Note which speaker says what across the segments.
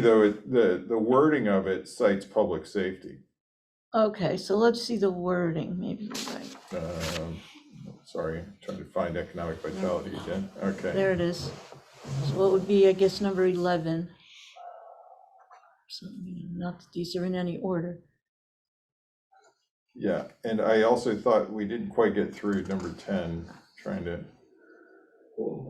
Speaker 1: Though, it- the, the wording of it cites public safety.
Speaker 2: Okay, so let's see the wording, maybe you're right.
Speaker 1: Um, Sorry, trying to find economic vitality again, okay.
Speaker 2: There it is. So what would be, I guess, number 11? So, you know, Not that these are in any order.
Speaker 1: Yeah, and I also thought we didn't quite get through number ten, trying to,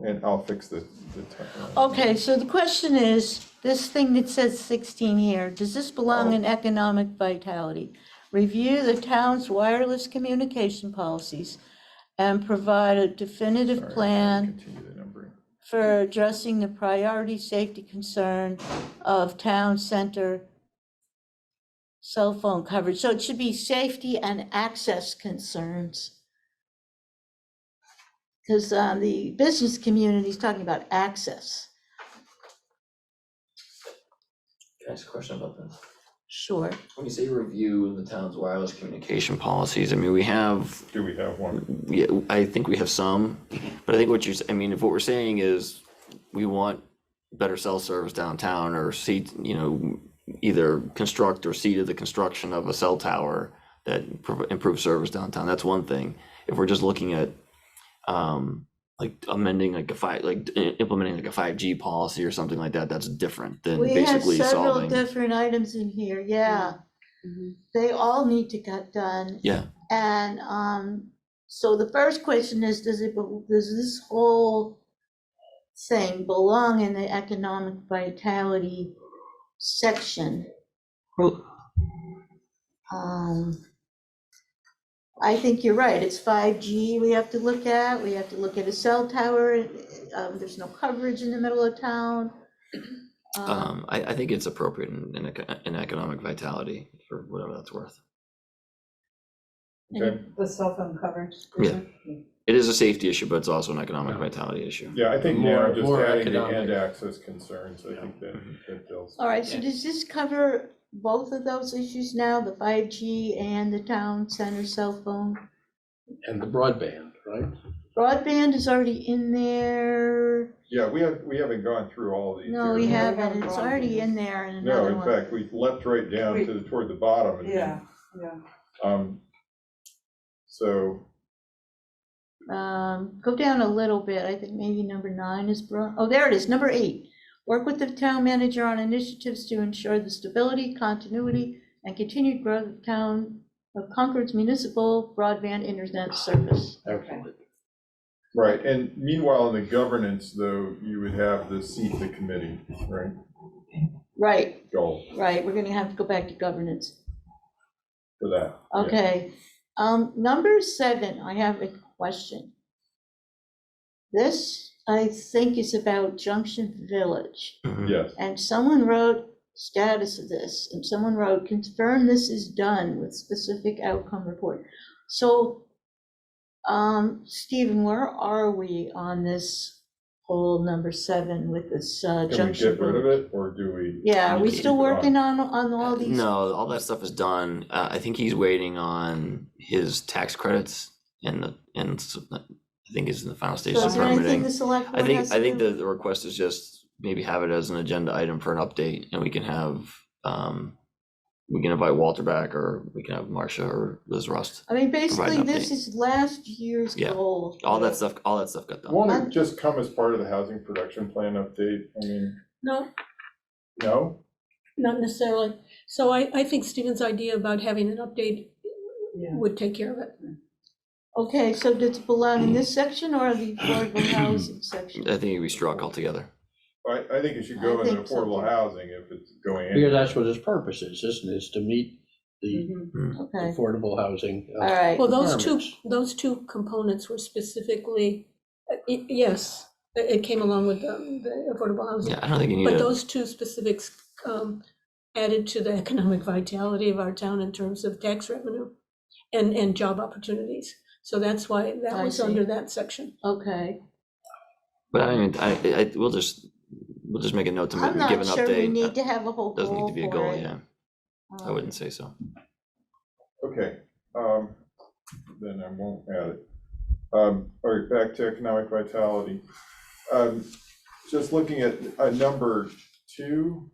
Speaker 1: and I'll fix the, the. ti- uh,
Speaker 2: Okay, so the question is, this thing that says 16 here, does this belong in economic vitality? Review the town's wireless communication policies and provide a definitive
Speaker 1: sorry,
Speaker 2: plan
Speaker 1: Continue the numbering.
Speaker 2: for addressing the priority safety concern of town center cell phone coverage. So it should be safety and access concerns. Because the business community is talking about access.
Speaker 3: Can I ask a question about this?
Speaker 2: Sure.
Speaker 3: When you say review the town's wireless communication policies, I mean, we have,
Speaker 1: Do we have one?
Speaker 3: yeah, I think we have some, but I think what you're, s- I mean, if what we're saying is we want better cell service downtown or seat, you know, either construct or see to the construction of a cell tower that prov- improves service downtown, that's one thing. If we're just looking at, um, like amending like a five, like i- implementing like a five G policy or something like that, that's different than
Speaker 2: We have
Speaker 3: basically
Speaker 2: several
Speaker 3: solving.
Speaker 2: different items in here, yeah.
Speaker 4: Mhm.
Speaker 2: They all need to get done.
Speaker 3: Yeah.
Speaker 2: And um, so the first question is, does it, bel- does this whole thing belong in the economic vitality section?
Speaker 3: Well-
Speaker 2: Um, I think you're right, it's 5G we have to look at, we have to look at a cell tower, um, there's no coverage in the middle of town. Um,
Speaker 3: Um, I, I think it's appropriate in, in, eco- in economic vitality for whatever that's worth.
Speaker 1: Okay.
Speaker 4: The cell phone coverage.
Speaker 3: Yeah. It is a safety issue, but it's also an economic vitality issue.
Speaker 1: Yeah, I think now
Speaker 5: More-
Speaker 1: just
Speaker 5: more
Speaker 1: adding the
Speaker 5: economic.
Speaker 1: end access concerns, I think that, that deals.
Speaker 2: All right, so
Speaker 3: Yeah.
Speaker 2: does this cover both of those issues now, the five G and the town center cell phone?
Speaker 5: And the broadband, right?
Speaker 2: Broadband is already in there.
Speaker 1: Yeah, we have, we haven't gone through all of these.
Speaker 2: No, we
Speaker 1: here.
Speaker 4: have
Speaker 2: haven't. It's already in there in
Speaker 1: No,
Speaker 2: another
Speaker 1: in
Speaker 2: one.
Speaker 1: fact, we leapt right down to, the- toward the bottom. and then,
Speaker 4: Yeah, yeah.
Speaker 1: Um, so,
Speaker 2: Um, go down a little bit. I think maybe number nine is bro, oh, there it is, number eight. Work with the town manager on initiatives to ensure the stability, continuity, and continued growth of town of Concord's municipal broadband internet service.
Speaker 4: Okay.
Speaker 1: right, and meanwhile, in the governance, though, you would have the seat, the committee, right,
Speaker 2: Right,
Speaker 1: goal
Speaker 2: Right, we're gonna have to go back to governance.
Speaker 1: for that. yeah.
Speaker 2: Okay, um, number seven, I have a question. This, I think, is about Junction Village,
Speaker 3: Mhm.
Speaker 1: Yes,
Speaker 2: and someone wrote status of this, and someone wrote, confirm this is done with specific outcome report. So, um, Stephen, where are we on this whole number seven with this uh,
Speaker 1: can we
Speaker 2: Junction?
Speaker 1: get rid of
Speaker 2: Village?
Speaker 1: it, or do we?
Speaker 2: Yeah, are we still
Speaker 1: Keep it on?
Speaker 2: working on, on all these?
Speaker 3: Uh, No, all that stuff is done. Uh, I think he's waiting on his tax credits and the, and s- I think is in the final stages
Speaker 2: So
Speaker 3: of
Speaker 2: is there anything the
Speaker 3: permitting.
Speaker 2: select
Speaker 3: I
Speaker 2: board
Speaker 3: think,
Speaker 2: has
Speaker 3: I
Speaker 2: to
Speaker 3: think
Speaker 2: do?
Speaker 3: the, the request is just maybe have it as an agenda item for an update and we can have, um, we can invite Walter back or we can have Marcia or Liz Rust.
Speaker 2: I mean, basically,
Speaker 3: an
Speaker 2: this
Speaker 3: update.
Speaker 2: is last year's
Speaker 3: Yeah.
Speaker 2: goal.
Speaker 3: All that stuff, all that stuff got done.
Speaker 1: Won't it just come as part of the housing production plan update? I mean,
Speaker 6: No,
Speaker 1: no?
Speaker 6: not necessarily. So I, I think Stephen's idea about having an update
Speaker 4: Yeah.
Speaker 6: would take care of it.
Speaker 2: Okay, so does it belong in
Speaker 3: Mm.
Speaker 2: this section or the affordable housing
Speaker 3: I
Speaker 2: section?
Speaker 3: think it'd be struck altogether.
Speaker 1: I, I think it should
Speaker 2: I
Speaker 1: go in the
Speaker 2: think so, too.
Speaker 1: affordable housing if it's going.
Speaker 5: Because that's what its purpose is, isn't it, is to meet the
Speaker 4: Mhm.
Speaker 2: Okay,
Speaker 5: affordable housing. uh,
Speaker 2: all right,
Speaker 6: Well, those two,
Speaker 5: Requirements.
Speaker 6: those two components were specifically, uh, y- yes, it it came along with the the affordable housing.
Speaker 3: Yeah, I don't think you need
Speaker 6: But
Speaker 3: it.
Speaker 6: those two specifics um, added to the economic vitality of our town in terms of tax revenue and, and job opportunities. So that's why that
Speaker 2: I
Speaker 6: was
Speaker 2: see.
Speaker 6: under that section.
Speaker 2: okay.
Speaker 3: But I mean, I, I, we'll just, we'll just make a note to ma-
Speaker 2: I'm
Speaker 3: give
Speaker 2: not sure
Speaker 3: an
Speaker 2: we need
Speaker 3: update.
Speaker 2: to have a whole
Speaker 3: Doesn't need
Speaker 2: goal
Speaker 3: to be a
Speaker 2: for
Speaker 3: goal,
Speaker 2: it.
Speaker 3: yeah. I
Speaker 2: Um,
Speaker 3: wouldn't say so.
Speaker 1: Okay, um, then I won't add it. Um, all right, back to economic vitality. Um, just looking at, uh, number two,